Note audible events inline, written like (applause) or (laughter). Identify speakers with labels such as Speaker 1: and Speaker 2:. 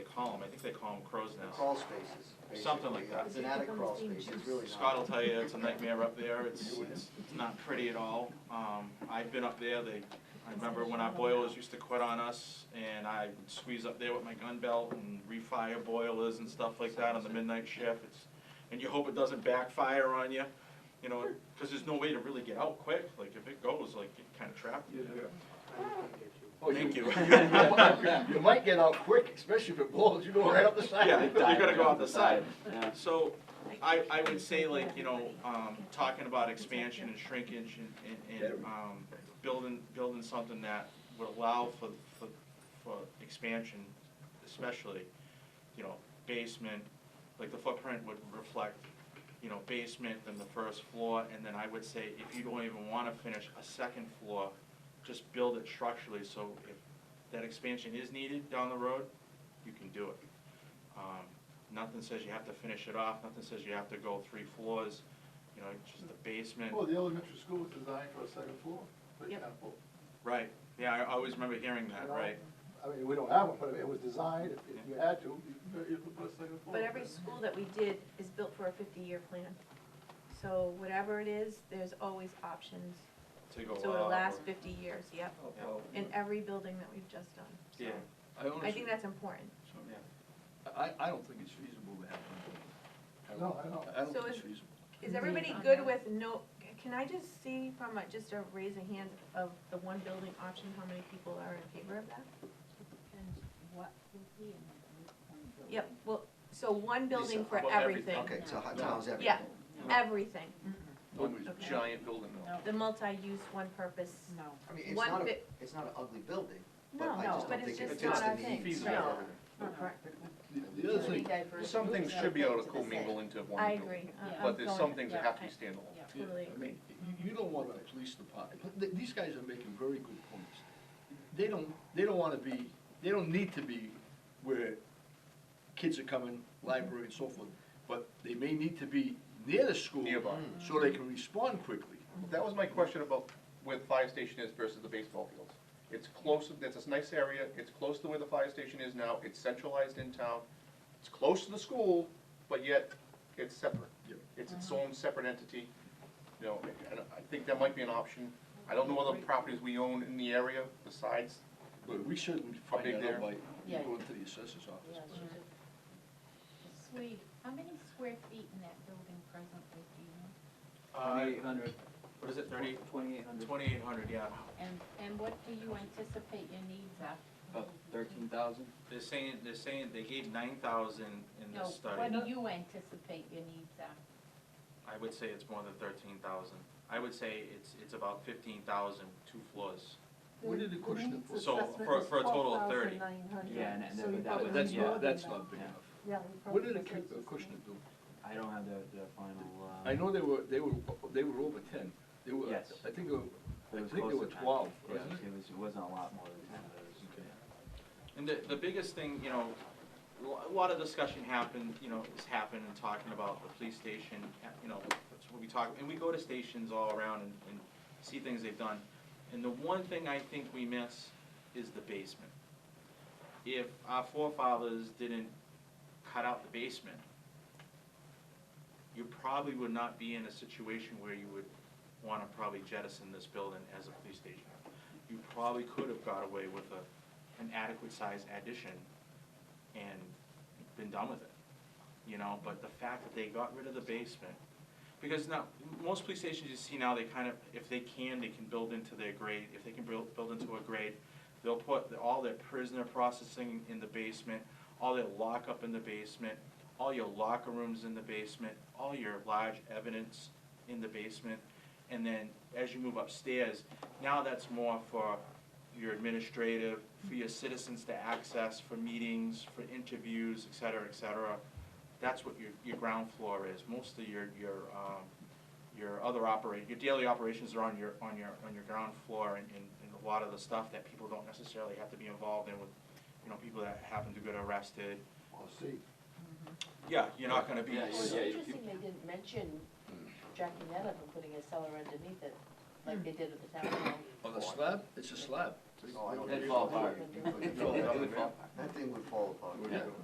Speaker 1: call them? I think they call them crow's
Speaker 2: The
Speaker 1: nests.
Speaker 2: Crawl spaces.
Speaker 1: Something like
Speaker 2: basically.
Speaker 1: that.
Speaker 2: It's an attic crawl space, it's really not.
Speaker 1: Scott will tell you, it's a nightmare up there, it's, it's it's not pretty at all. Um, I've been up there, they, I remember when our boilers used to quit on us, and I would squeeze up there with my gun belt and refire boilers and stuff like that on the midnight shift. It's- And you hope it doesn't backfire on you, you know, because there's no way to really get out quick, like if it goes, like, you're kind of trapped. in there.
Speaker 3: Oh,
Speaker 1: Thank (laughs) you.
Speaker 3: (laughs) You might get out quick, especially if it blows, you go right up the side.
Speaker 1: Yeah, you gotta go out the side.
Speaker 4: Yeah.
Speaker 1: So, I, I would say like, you know, um, talking about expansion and shrinkage and, and, and, um, building, building something that would allow for, for, for expansion, especially, you know, basement, like the footprint would reflect, you know, basement, then the first floor, and then I would say, if you don't even wanna finish a second floor, just build it structurally, so if that expansion is needed down the road, you can do it. Um, Nothing says you have to finish it off, nothing says you have to go three floors, you know, just the basement.
Speaker 5: Well, the elementary school was designed for a second floor, for
Speaker 6: Yep.
Speaker 5: example.
Speaker 1: Right, yeah, I always remember hearing
Speaker 5: you
Speaker 1: that,
Speaker 5: know?
Speaker 1: right.
Speaker 5: I mean, we don't have one, but it was designed, if if you had to, you- you could put a second floor.
Speaker 6: But every school that we did is built for a fifty-year plan. So whatever it is, there's always options,
Speaker 1: To go
Speaker 6: so it'll
Speaker 1: up
Speaker 6: last
Speaker 1: or-
Speaker 6: fifty years, yep,
Speaker 3: Well,
Speaker 6: in every building that we've just done. So
Speaker 1: Yeah,
Speaker 3: I
Speaker 6: I
Speaker 3: honestly,
Speaker 6: think that's important.
Speaker 1: yeah.
Speaker 3: I, I don't think it's feasible to have one.
Speaker 5: No, I don't.
Speaker 3: I don't
Speaker 6: So
Speaker 3: think it's
Speaker 6: is-
Speaker 3: feasible.
Speaker 6: Is
Speaker 7: Indeed.
Speaker 6: everybody good with no, can I just see from a, just a raise of hands of the one building option, how many people are in favor of that? Yep, well, so one building for
Speaker 1: Well, everything.
Speaker 6: everything,
Speaker 2: Okay, so how- how's everything?
Speaker 6: Yeah. everything,
Speaker 3: Nobody's
Speaker 6: Okay.
Speaker 3: giant building though.
Speaker 7: No.
Speaker 6: the multi-use, one purpose.
Speaker 7: No.
Speaker 2: I mean, it's
Speaker 6: One
Speaker 2: not, a-
Speaker 6: bit-
Speaker 2: it's not an ugly building, but
Speaker 6: No,
Speaker 2: I just
Speaker 6: but
Speaker 2: don't
Speaker 6: it's
Speaker 2: think it
Speaker 6: just
Speaker 2: fits
Speaker 6: not
Speaker 2: the
Speaker 6: our
Speaker 2: need.
Speaker 6: thing.
Speaker 2: for
Speaker 3: No.
Speaker 2: everything.
Speaker 3: The other thing, some things should be able to commingle into one
Speaker 6: I
Speaker 3: building.
Speaker 6: agree. I- I'm
Speaker 3: But there's
Speaker 6: going
Speaker 3: some
Speaker 6: with-
Speaker 3: things that
Speaker 6: yeah,
Speaker 3: have to
Speaker 6: I-
Speaker 3: be standalone.
Speaker 7: Yeah.
Speaker 3: Yeah,
Speaker 6: Totally
Speaker 3: I
Speaker 6: agree.
Speaker 3: mean, you, you don't want the police department, th- these guys are making very good points. They don't, they don't wanna be, they don't need to be where kids are coming, library and so forth, but they may need to be near the school.
Speaker 8: Nearby.
Speaker 3: So they can respond quickly.
Speaker 8: That was my question about where the fire station is versus the baseball fields. It's close, it's a nice area, it's close to where the fire station is now, it's centralized in town, it's close to the school, but yet it's separate.
Speaker 3: Yep.
Speaker 8: It's its own separate entity, you know, and I think that might be an option. I don't know other properties we own in the area besides,
Speaker 3: But we certainly
Speaker 8: How
Speaker 3: find
Speaker 8: big
Speaker 3: that
Speaker 8: they're-
Speaker 3: out by
Speaker 7: Yeah.
Speaker 3: going to the assessor's office.
Speaker 9: Sweet. How many square feet in that building presently do you know?
Speaker 1: Uh, what is it, thirty,
Speaker 4: Twenty-eight hundred,
Speaker 1: Uh, twenty-eight hundred, yeah.
Speaker 9: And, and what do you anticipate your needs are?
Speaker 4: about thirteen thousand.
Speaker 1: They're saying, they're saying they gave nine thousand in
Speaker 9: No,
Speaker 1: this
Speaker 9: what
Speaker 1: study.
Speaker 9: do you anticipate your needs are?
Speaker 1: I would say it's more than thirteen thousand. I would say it's, it's about fifteen thousand, two floors.
Speaker 3: Where did the question
Speaker 7: needs
Speaker 3: for?
Speaker 1: So,
Speaker 7: assessment
Speaker 1: for-
Speaker 7: was
Speaker 1: for a total of 30.
Speaker 6: Oh,
Speaker 7: 12,900.
Speaker 4: Yeah, and- and
Speaker 7: So you
Speaker 4: that
Speaker 7: probably
Speaker 4: was-
Speaker 3: That's
Speaker 7: need more
Speaker 4: yeah,
Speaker 3: not,
Speaker 7: than
Speaker 3: that's
Speaker 7: that.
Speaker 3: not big
Speaker 4: Yeah.
Speaker 3: enough.
Speaker 7: Yeah, we
Speaker 3: What
Speaker 7: probably
Speaker 3: did the
Speaker 7: need
Speaker 3: cu- the
Speaker 7: assessment.
Speaker 3: question do?
Speaker 4: I don't have the, the final, um.
Speaker 3: I know they were, they were, they were over ten, they were,
Speaker 4: Yes.
Speaker 3: I think, they were-
Speaker 4: but it
Speaker 3: I
Speaker 4: was
Speaker 3: think they
Speaker 4: close
Speaker 3: were
Speaker 4: to 10.
Speaker 3: twelve,
Speaker 4: Yeah,
Speaker 3: wasn't it?
Speaker 4: It was, it wasn't a lot more than ten, but it was,
Speaker 3: Okay.
Speaker 1: And the, the biggest thing, you know, lo- a lot of discussion happened, you know, has happened in talking about the police station, uh, you know, that's what we talk, and we go to stations all around and, and see things they've done. And the one thing I think we miss is the basement. If our forefathers didn't cut out the basement, you probably would not be in a situation where you would wanna probably jettison this building as a police station. You probably could have got away with a, an adequate size addition and been done with it. You know, but the fact that they got rid of the basement, because now, most police stations you see now, they kind of, if they can, they can build into their grade, if they can build, build into a grade, they'll put the- all their prisoner processing in the basement, all their lockup in the basement, all your locker rooms in the basement, all your large evidence in the basement. And then as you move upstairs, now that's more for your administrative, for your citizens to access, for meetings, for interviews, et cetera, et cetera. That's what your, your ground floor is. Most of your, your, um, your other operate, your daily operations are on your, on your, on your ground floor and, and and a lot of the stuff that people don't necessarily have to be involved in with, you know, people that happen to get arrested.
Speaker 5: Well, see,
Speaker 1: Yeah, you're not gonna be.
Speaker 4: Yeah,
Speaker 7: Well, it's
Speaker 4: yeah, you-
Speaker 7: interesting they didn't mention jacking that up and putting a cellar underneath it, like they did at the town hall.
Speaker 3: On the slab, it's a slab.
Speaker 2: No, I don't
Speaker 4: That'd
Speaker 2: think
Speaker 4: fall
Speaker 2: so.
Speaker 4: apart.
Speaker 2: It would-
Speaker 3: No, it would fall
Speaker 2: That thing would fall apart.
Speaker 3: Yeah.